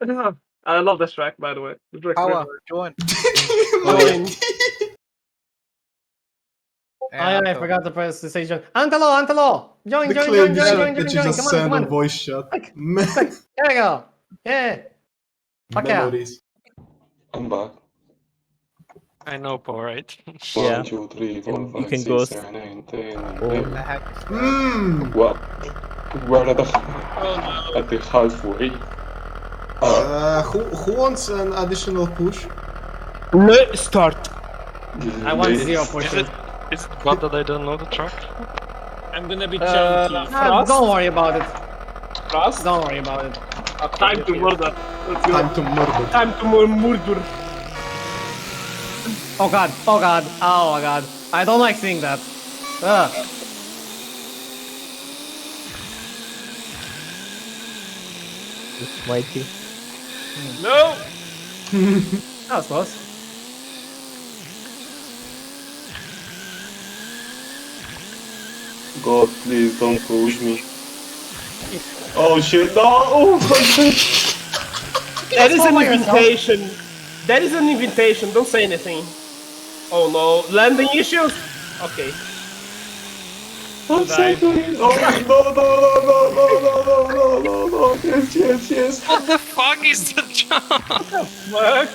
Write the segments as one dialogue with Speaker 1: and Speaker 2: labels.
Speaker 1: I love this track, by the way. The track's really
Speaker 2: Power,
Speaker 1: good.
Speaker 2: join.
Speaker 3: Join.
Speaker 4: Aye, aye, I forgot to press the stage. Antelo, Antelo! Join,
Speaker 3: The
Speaker 4: join,
Speaker 3: clear
Speaker 4: join, join,
Speaker 3: shot
Speaker 4: join,
Speaker 3: that
Speaker 4: join,
Speaker 3: you
Speaker 4: join.
Speaker 3: just
Speaker 4: Come on,
Speaker 3: sent
Speaker 4: come
Speaker 3: a
Speaker 4: on.
Speaker 3: voice shot.
Speaker 4: Click,
Speaker 3: Man,
Speaker 4: There we go. Yeah. Fuck yeah.
Speaker 3: memories.
Speaker 5: I'm back.
Speaker 6: I know, Paul, right?
Speaker 7: Yeah.
Speaker 5: One, two, three, four,
Speaker 7: And you
Speaker 5: five,
Speaker 7: can
Speaker 5: six,
Speaker 7: go
Speaker 5: seven, eight, ten,
Speaker 7: Oh.
Speaker 5: eleven.
Speaker 3: Mmm.
Speaker 5: Well, we're at the,
Speaker 1: Oh, my lord.
Speaker 5: at the halfway. Uh,
Speaker 3: Uh, who who wants an additional push?
Speaker 7: Let's start.
Speaker 4: I want
Speaker 5: this-
Speaker 4: zero
Speaker 6: Is
Speaker 4: pushes.
Speaker 6: it is it bad that I don't know the track?
Speaker 8: I'm gonna be
Speaker 1: Uh,
Speaker 8: chunky.
Speaker 4: Ah,
Speaker 1: Frost?
Speaker 4: don't worry about it.
Speaker 1: Frost?
Speaker 4: Don't worry about it.
Speaker 1: Time to murder. Let's
Speaker 3: Time
Speaker 1: go.
Speaker 3: to murder.
Speaker 1: Time to mur- murder.
Speaker 4: Oh god. Oh god. Oh my god. I don't like seeing that. Ugh.
Speaker 7: Mighty.
Speaker 1: No!
Speaker 4: That was close.
Speaker 5: God, please don't push me. Oh shit, no! Oh,
Speaker 1: That is an
Speaker 4: follow yourself.
Speaker 1: invitation. Oh That is an invitation. Don't say anything. Oh no, landing issues. Okay.
Speaker 5: I'm so
Speaker 1: Right.
Speaker 5: sorry. Oh, no, no, no, no, no, no, no, no, no, yes, yes, yes.
Speaker 6: What the fuck is the jump?
Speaker 1: Fuck.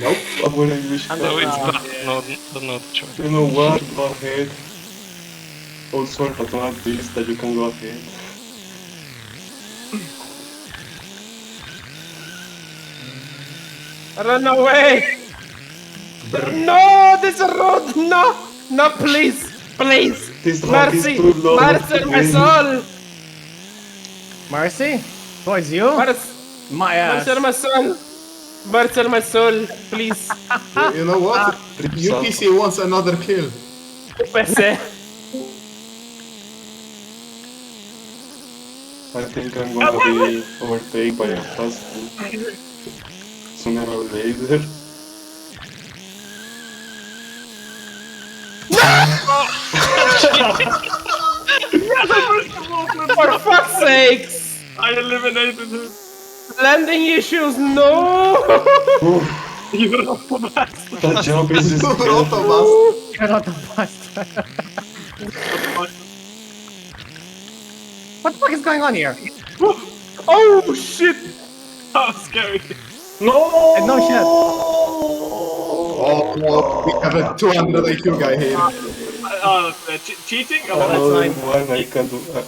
Speaker 5: Nope, I'm wearing wish
Speaker 6: No,
Speaker 5: card.
Speaker 6: it's bad. No, don't know the track.
Speaker 5: You know what? Go ahead. Oh, sorry, but not this, that you can go ahead.
Speaker 1: Run away! No, this road, no, no, please, please,
Speaker 5: This rock is
Speaker 1: mercy,
Speaker 5: too long.
Speaker 1: mercy, my soul,
Speaker 4: Mercy? Towards you?
Speaker 1: mercy,
Speaker 4: My ass.
Speaker 1: mercy, my soul, mercy, my soul, please,
Speaker 3: You- You know what? UPC wants another kill.
Speaker 1: mercy.
Speaker 5: I think I'm gonna be overtaken by a fast food. Sooner or later.
Speaker 1: For fuck's sakes!
Speaker 6: I eliminated him.
Speaker 1: Landing issues, no!
Speaker 5: That jump is just
Speaker 3: Both of us.
Speaker 4: You're not the bastard. what the fuck is going on here?
Speaker 1: Oh shit!
Speaker 6: That was scary.
Speaker 5: No!
Speaker 4: And no shit.
Speaker 3: Oh, Ah. well, we have a 200 IQ guy here.
Speaker 1: Uh, uh, che- cheating?
Speaker 5: I
Speaker 1: Oh,
Speaker 5: know
Speaker 4: that's
Speaker 5: one I can do. I,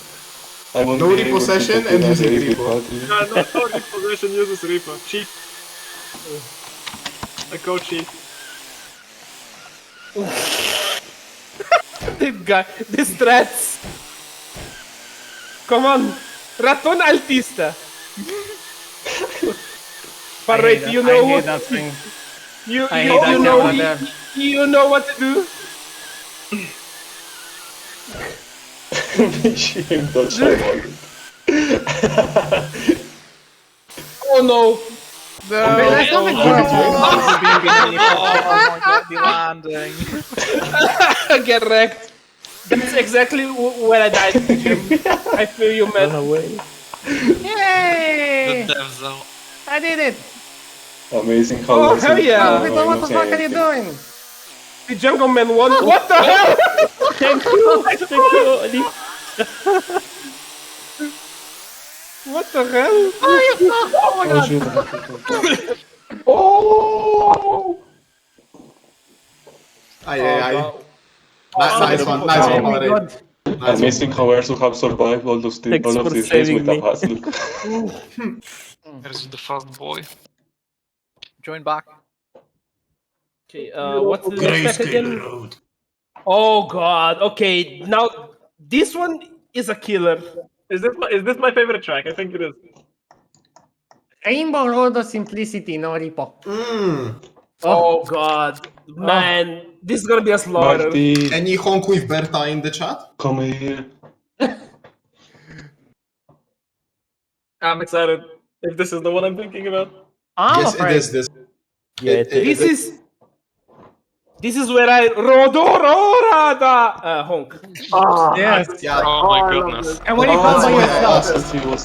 Speaker 5: I won't
Speaker 3: No
Speaker 5: be able to
Speaker 3: repossession
Speaker 5: do
Speaker 3: and
Speaker 5: that
Speaker 3: using
Speaker 5: with
Speaker 3: repo.
Speaker 5: battery.
Speaker 1: no, no, no, this possession uses Reaper. Cheat. I go cheat. this guy, this threats. Come on, Raton Altista. Parrot, you know
Speaker 4: I hate
Speaker 1: what?
Speaker 4: that thing.
Speaker 1: You,
Speaker 4: I
Speaker 1: you,
Speaker 4: hate that
Speaker 1: you know,
Speaker 4: camera there.
Speaker 1: you, you know what to do.
Speaker 5: Shame that I want it.
Speaker 1: Oh no.
Speaker 4: But there's nothing
Speaker 5: Oh,
Speaker 4: wrong.
Speaker 2: Oh, baby, oh my god, the landing.
Speaker 1: Get wrecked. That's exactly w- where I died. Jim. I feel you, man.
Speaker 4: Yay!
Speaker 6: The dev zone.
Speaker 4: I did it!
Speaker 5: Amazing how
Speaker 1: Oh,
Speaker 5: Lars
Speaker 1: hell
Speaker 5: and
Speaker 1: yeah.
Speaker 5: Lars
Speaker 4: Wait,
Speaker 5: are
Speaker 4: what the
Speaker 5: not
Speaker 4: fuck are you
Speaker 5: anything.
Speaker 4: doing?
Speaker 1: The jungle man won. What the hell? Oh
Speaker 7: Thank you. Thank you. Oli.
Speaker 1: What the hell?
Speaker 5: Oh, shit, I have to go.
Speaker 3: Aye, aye, aye. Ni- Nice one, nice
Speaker 4: Oh
Speaker 3: one,
Speaker 4: my
Speaker 3: Mario.
Speaker 4: god.
Speaker 3: Nice one.
Speaker 5: Amazing how Ersu have survived all those thi-
Speaker 7: Thanks
Speaker 5: all of
Speaker 7: for
Speaker 5: these days
Speaker 7: saving
Speaker 5: with a
Speaker 7: me.
Speaker 5: hustle.
Speaker 6: There's the fast boy.
Speaker 2: Join back.
Speaker 1: Okay, uh, what's the next step again? Oh god. Okay, now this one is a killer.
Speaker 9: Is this my, is this my favorite track? I think it is.
Speaker 4: Rainbow Road of Simplicity, no repo.
Speaker 3: Mmm.
Speaker 1: Oh god, man, this is gonna be a slaughter.
Speaker 5: Marty,
Speaker 3: Any honk with Berta in the chat?
Speaker 5: come here.
Speaker 9: I'm excited if this is the one I'm thinking about.
Speaker 4: I'm
Speaker 3: yes,
Speaker 4: afraid.
Speaker 3: it is this.
Speaker 7: Yeah, it
Speaker 1: This is this is where I Rodororada uh, honk.
Speaker 4: Yes.
Speaker 3: Yeah.
Speaker 6: Oh my goodness.
Speaker 4: And when you come by
Speaker 3: yeah.
Speaker 4: Oh, yourself,
Speaker 5: As Oh, he was